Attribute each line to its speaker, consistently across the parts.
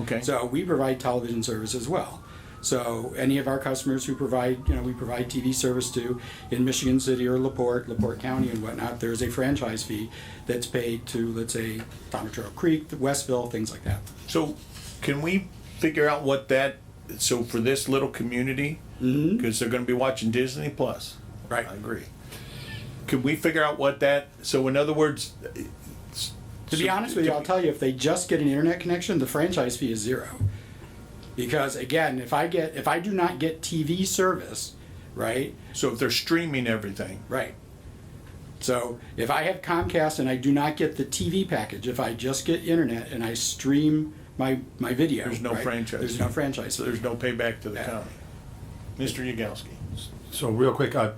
Speaker 1: Okay.
Speaker 2: So we provide television service as well. So any of our customers who provide, you know, we provide TV service to in Michigan City or Laporte, Laporte County and whatnot, there is a franchise fee that's paid to, let's say, Tomatoro Creek, Westville, things like that.
Speaker 1: So can we figure out what that, so for this little community, because they're gonna be watching Disney Plus.
Speaker 2: Mm-hmm. Right.
Speaker 1: I agree. Could we figure out what that, so in other words. it's-
Speaker 2: To be honest with you, I'll tell you, if they just get an internet connection, the franchise fee is zero. Because again, if I get, if I do not get TV service, right,
Speaker 1: So if they're streaming everything,
Speaker 2: Right. So if I have Comcast and I do not get the TV package, if I just get internet and I stream my, my video.
Speaker 1: There's no
Speaker 2: right,
Speaker 1: franchise.
Speaker 2: There's no franchise.
Speaker 1: so there's no payback to the
Speaker 2: Yeah.
Speaker 1: county. Mr. Yagowski.
Speaker 3: So real quick, I,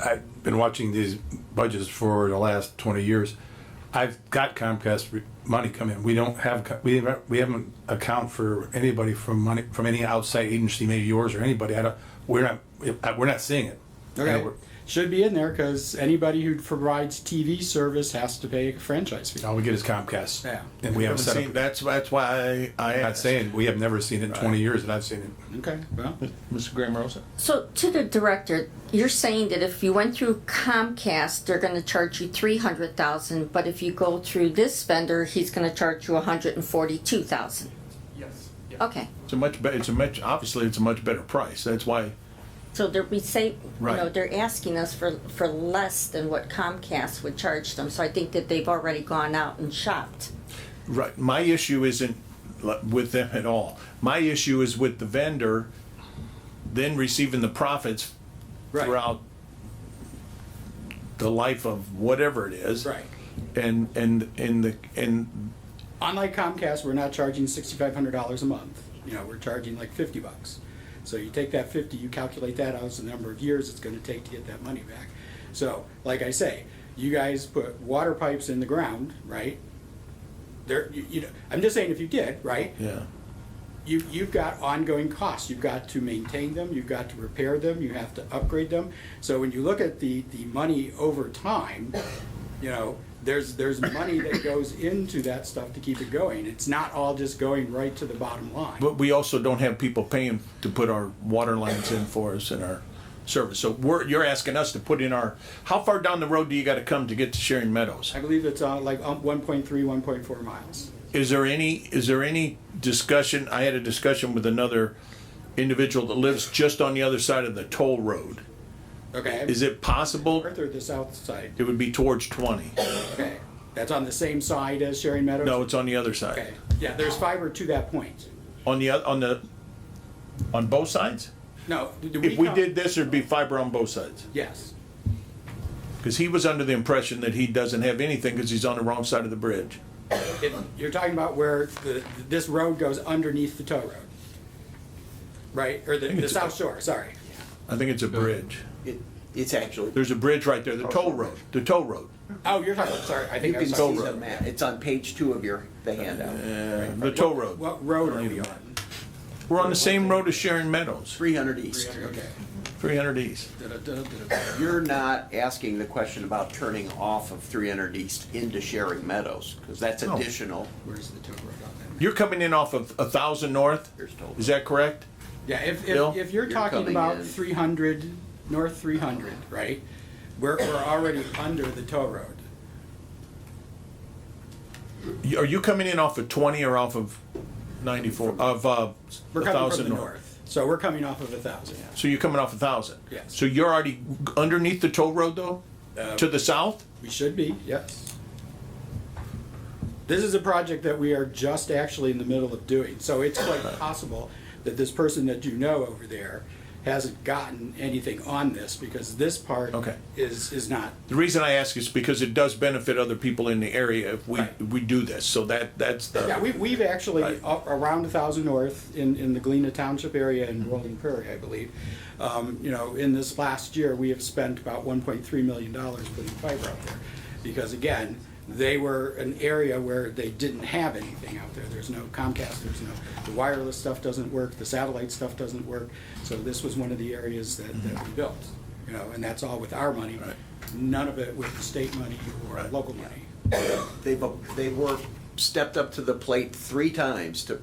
Speaker 3: I've been watching these budgets for the last twenty years. I've got Comcast re- money come in. We don't have, co- we, haven't- we haven't account for anybody from money, from any outside agency, maybe yours or anybody. I don't, we're not, we're not seeing it.
Speaker 2: Okay.
Speaker 3: And we're-
Speaker 2: Should be in there because anybody who provides TV service has to pay a franchise fee.
Speaker 3: All we get is Comcast.
Speaker 2: Yeah.
Speaker 3: And we haven't set
Speaker 1: seen-
Speaker 3: up,
Speaker 1: That's, that's why I, I
Speaker 3: I'm not
Speaker 1: asked.
Speaker 3: saying, we have never seen it in twenty years that I've seen it.
Speaker 2: Okay, well,
Speaker 1: Mr. Graham Rosa?
Speaker 4: So to the director, you're saying that if you went through Comcast, they're gonna charge you three hundred thousand, but if you go through this vendor, he's gonna charge you a hundred and forty-two thousand? Yes. Okay,
Speaker 1: It's a much, be- it's a much, obviously, it's a much better price. That's why,
Speaker 4: so they're, we say, you know,
Speaker 1: Right.
Speaker 4: they're asking us for, for less than what Comcast would charge them, so I think that they've already gone out and shopped.
Speaker 1: right, my issue isn't li- with them at all. My issue is with the vendor then receiving the profits
Speaker 2: Right.
Speaker 1: throughout the life of whatever it is.
Speaker 2: Right.
Speaker 1: And, and, and the, and,
Speaker 2: unlike Comcast, we're not charging sixty-five hundred dollars a month. You know, we're charging like fifty bucks. So you take that fifty, you calculate that out as the number of years it's gonna take to get that money back. So, like I say, you guys put water pipes in the ground, right? There, you, you know, I'm just saying if you did, right?
Speaker 1: yeah.
Speaker 2: you, you've got ongoing costs. You've got to maintain them, you've got to repair them, you have to upgrade them. So when you look at the, the money over time, you know, there's, there's money that goes into that stuff to keep it going. It's not all just going right to the bottom line.
Speaker 1: But we also don't have people paying to put our water lines in for us and our service. So we're, you're asking us to put in our, how far down the road do you gotta come to get to Sharon Meadows?
Speaker 2: I believe it's uh, like um, 1.3, 1.4 miles.
Speaker 1: Is there any, is there any discussion, I had a discussion with another individual that lives just on the other side of the toll road.
Speaker 2: Okay?
Speaker 1: Is it possible,
Speaker 2: North or the south side?
Speaker 1: it would be towards twenty?
Speaker 2: Okay. That's on the same side as Sharon Meadows?
Speaker 1: No, it's on the other
Speaker 2: Okay.
Speaker 1: side.
Speaker 2: Yeah, there's fiber to that point.
Speaker 1: On the, oth- on the, on both sides?
Speaker 2: No. do
Speaker 1: If we
Speaker 2: count-
Speaker 1: did this, there'd be fiber on both sides.
Speaker 2: Yes.
Speaker 1: Cause he was under the impression that he doesn't have anything because he's on the wrong side of the bridge.
Speaker 2: If You're talking about where the, this road goes underneath the tow road. Right, or the, the
Speaker 1: it's-
Speaker 2: south shore, sorry.
Speaker 1: I think it's a bridge.
Speaker 5: It, it's actually,
Speaker 1: There's a bridge right there, the toll road, the toll road.
Speaker 2: Oh, you're talking, sorry, I
Speaker 5: you
Speaker 2: think I was
Speaker 5: can see
Speaker 2: talking.
Speaker 5: the map. It's on page two of your, the handout.
Speaker 1: Uh, The toll road.
Speaker 2: What road are we on?
Speaker 1: We're on the same road as Sharon Meadows,
Speaker 5: Three hundred east.
Speaker 2: Okay.
Speaker 1: three hundred east.
Speaker 5: You're not asking the question about turning off of three hundred east into Sharing Meadows, because that's
Speaker 1: No.
Speaker 5: additional.
Speaker 2: Where's the tow road on that?
Speaker 1: You're coming in off of a thousand north,
Speaker 5: Here's toll.
Speaker 1: is that correct?
Speaker 2: Yeah, if,
Speaker 1: Bill?
Speaker 2: if, if you're
Speaker 5: You're
Speaker 2: talking
Speaker 5: coming
Speaker 2: about
Speaker 5: in.
Speaker 2: three hundred, north three hundred, right? We're, we're already under the tow road.
Speaker 1: You- Are you coming in off of twenty or off of ninety-four, of, uh,
Speaker 2: We're coming
Speaker 1: a
Speaker 2: from
Speaker 1: thousand
Speaker 2: the
Speaker 1: north?
Speaker 2: north, so we're coming off of a thousand.
Speaker 1: So you're coming off a thousand?
Speaker 2: Yes. Uh,
Speaker 1: So you're already underneath the toll road though, to the south?
Speaker 2: We should be, yes. This is a project that we are just actually in the middle of doing, so it's quite possible that this person that you know over there hasn't gotten anything on this, because this part
Speaker 1: Okay.
Speaker 2: is, is not,
Speaker 1: The reason I ask is because it does benefit other people in the area if we,
Speaker 2: Right.
Speaker 1: we do this, so that, that's the.
Speaker 2: yeah, we, we've actually, up around a thousand north, in, in the Galena Township area in Rolling Prairie, I believe. Um, you know, in this last year, we have spent about one point three million dollars putting fiber out there, because again, they were an area where they didn't have anything out there. There's no Comcast, there's no, the wireless stuff doesn't work, the satellite stuff doesn't work. So this was one of the areas that, that we built, you know, and that's all with our money. None of it with the state money or local money.
Speaker 5: They've, they were stepped up to the plate three times to